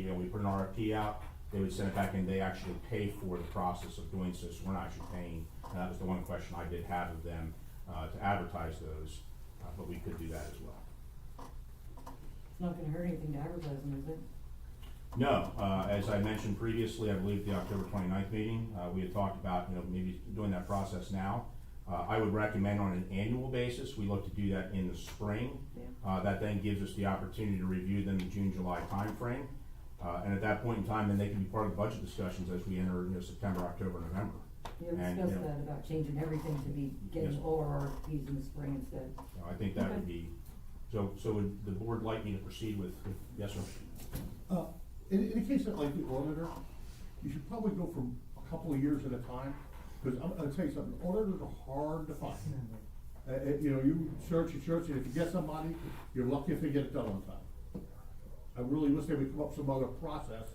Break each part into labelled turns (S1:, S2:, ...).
S1: we put an RFP out, they would send it back and they actually pay for the process of doing so, so we're not actually paying. And that was the one question I did have of them, uh, to advertise those, uh, but we could do that as well.
S2: It's not gonna hurt anything to advertise them, is it?
S1: No, uh, as I mentioned previously, I believe the October 29th meeting, uh, we had talked about, you know, maybe doing that process now. Uh, I would recommend on an annual basis, we look to do that in the spring.
S2: Yeah.
S1: Uh, that then gives us the opportunity to review them in June, July timeframe. Uh, and at that point in time, then they can be part of the budget discussions as we enter, you know, September, October, November.
S2: You
S1: And, you
S2: discussed
S1: know-
S2: that about changing everything to be getting
S1: Yes.
S2: all our RFPs in the spring instead.
S1: You know, I think that would
S2: Okay.
S1: be, so, so would the board like me to proceed with, with- yes, sir?
S3: Uh, In, in a case of like the auditor, you should probably go for a couple of years at a time, because I'm gonna tell you something, auditors are hard to find. Uh, uh, you know, you search, you search, and if you get somebody, you're lucky if they get it done on time. I really wish they would come up with some other process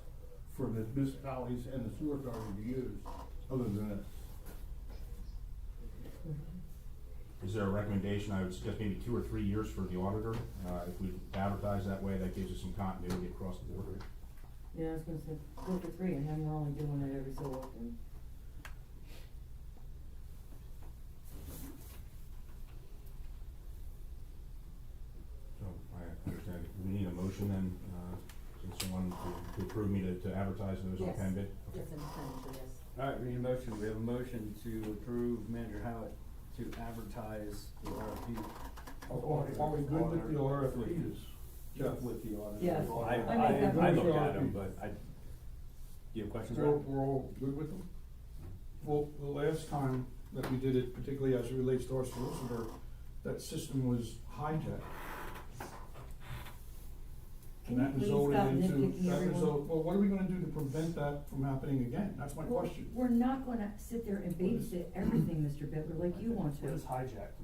S3: for the municipalities and the sewer authority to use, other than this.
S1: Is there a recommendation, I would suggest maybe two or three years for the auditor, uh, if we advertise that way, that gives us some continuity across the board.
S2: Yeah, I was gonna say, go for three, and then we're only doing it every so often.
S1: So, I understand, we need a motion then, uh, since someone to, to approve me to, to advertise those on
S4: Yes.
S1: Penn bid? Okay.
S4: Yes, in expenditure, yes.
S5: All right, we need a motion. We have a motion to approve manager Howitt to advertise the RFP.
S6: Are are we good with the RFPs?
S3: Jeff?
S5: With the auditor.
S2: Yes.
S5: I,
S2: I make that
S5: I, I looked
S6: motion.
S5: at them, but I, do you have questions?
S6: We're,
S5: Rob?
S6: we're all good with them? Well, the last time that we did it, particularly as it relates to our solicitor, that system was hijacked. And that
S2: Can you please
S6: resulted
S2: stop
S6: into,
S2: nitpicking
S6: that
S2: everyone?
S6: result, well, what are we gonna do to prevent that from happening again? That's my
S2: Well,
S6: question.
S2: We're not gonna sit there and babysit everything, Mr. Bitler, like you want to.
S6: hijacked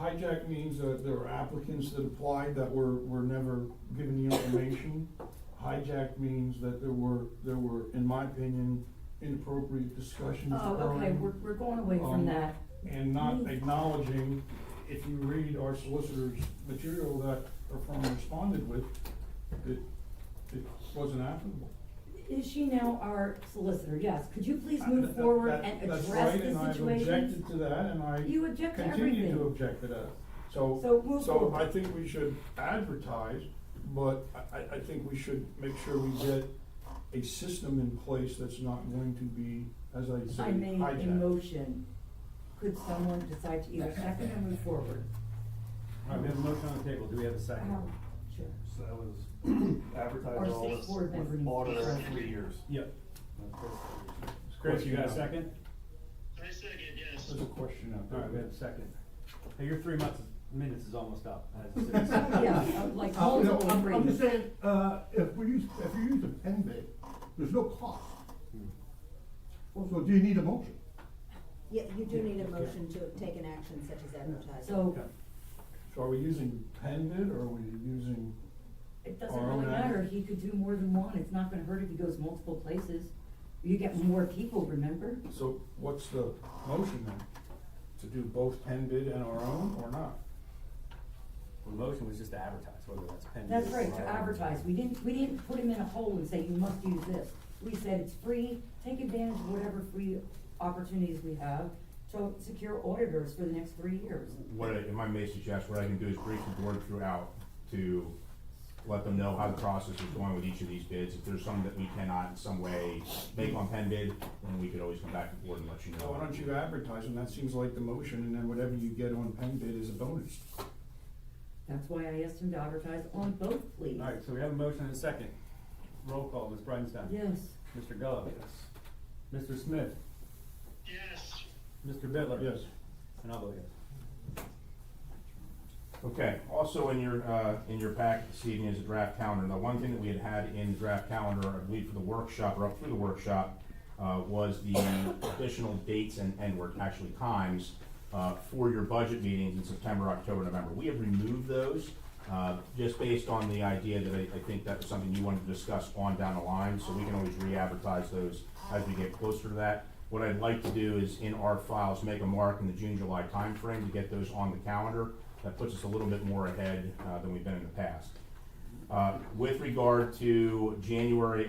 S6: Hijack means that there were applicants that applied that were, were never given the information. Hijack means that there were, there were, in my opinion, inappropriate discussions
S2: Oh, okay,
S6: occurring
S2: we're, we're going away from
S6: Um,
S2: that.
S6: and not acknowledging, if you read our solicitor's material that our firm responded with, it, it wasn't applicable.
S2: Is she now our solicitor? Yes, could you please
S6: Uh, That-
S2: move
S6: that-
S2: forward
S6: that-
S2: and
S6: that's
S2: address
S6: right,
S2: the
S6: and I've
S2: situation?
S6: objected to that, and I
S2: You object to
S6: continue to
S2: everything.
S6: object to that. So,
S2: So move
S6: so
S2: forward.
S6: I think we should advertise, but I, I, I think we should make sure we get a system in place that's not going to be, as I say,
S2: I made a
S6: hijacked.
S2: motion. Could someone decide to either second or move forward?
S5: All right, we have a motion on the table. Do we have a second?
S2: Um, Sure.
S7: So that was
S2: Our
S7: advertised all
S2: state
S7: this
S2: board member needs
S7: with
S2: to
S7: auditor
S2: present.
S7: three years.
S5: Yep. Chris, you got a second?
S8: I second, yes.
S6: There's a question out
S5: All
S6: there.
S5: right, we have a second. Hey, your three months, minutes is almost up. as it is.
S2: Yeah, like
S3: Uh, no,
S2: multiple
S3: I'm- I'm just
S2: reasons.
S3: saying, uh, if we use, if you use a pen bid, there's no cost. So do you need a motion?
S4: Yeah, you do need a motion to take an action such as advertising.
S2: So
S6: So are we using pen bid or are we using,
S2: it doesn't
S6: Our own
S2: really matter.
S6: act.
S2: He could do more than one. It's not gonna hurt if he goes multiple places. You get more people, remember?
S6: so what's the motion then? To do both pen bid and our own or not?
S5: The motion was just to advertise, whether that's pending.
S2: That's right, to advertise. We didn't, we didn't put him in a hole and say, you must use this. We said it's free, take advantage of whatever free opportunities we have to secure auditors for the next three years.
S1: What, I- if I may suggest, what I can do is brief the board throughout to let them know how the process is going with each of these bids. If there's some that we cannot in some way make on Penn bid, then we could always come back to the board and let you know.
S6: Why don't you advertise and that seems like the motion and then whatever you get on pen bid is a bonus.
S2: That's why I asked him to advertise on both, please.
S5: All right, so we have a motion and a second. Roll call, Ms. Bridenstine.
S2: Yes,
S5: Mr. Gallo. Yes. Mr. Smith.
S8: Yes.
S5: Mr. Bitler.
S6: Yes.
S5: And I'll vote yes.
S1: Okay, also in your, uh, in your packet this evening is a draft calendar. Now, one thing that we had had in the draft calendar, I believe for the workshop, or up through the workshop, uh, was the additional dates and, and were actually times, uh, for your budget meetings in September, October, November. We have removed those, uh, just based on the idea that I, I think that was something you wanted to discuss on down the line, so we can always re-advertise those as we get closer to that. What I'd like to do is in our files, make a mark in the June, July timeframe to get those on the calendar. That puts us a little bit more ahead, uh, than we've been in the past. Uh, with regard to January,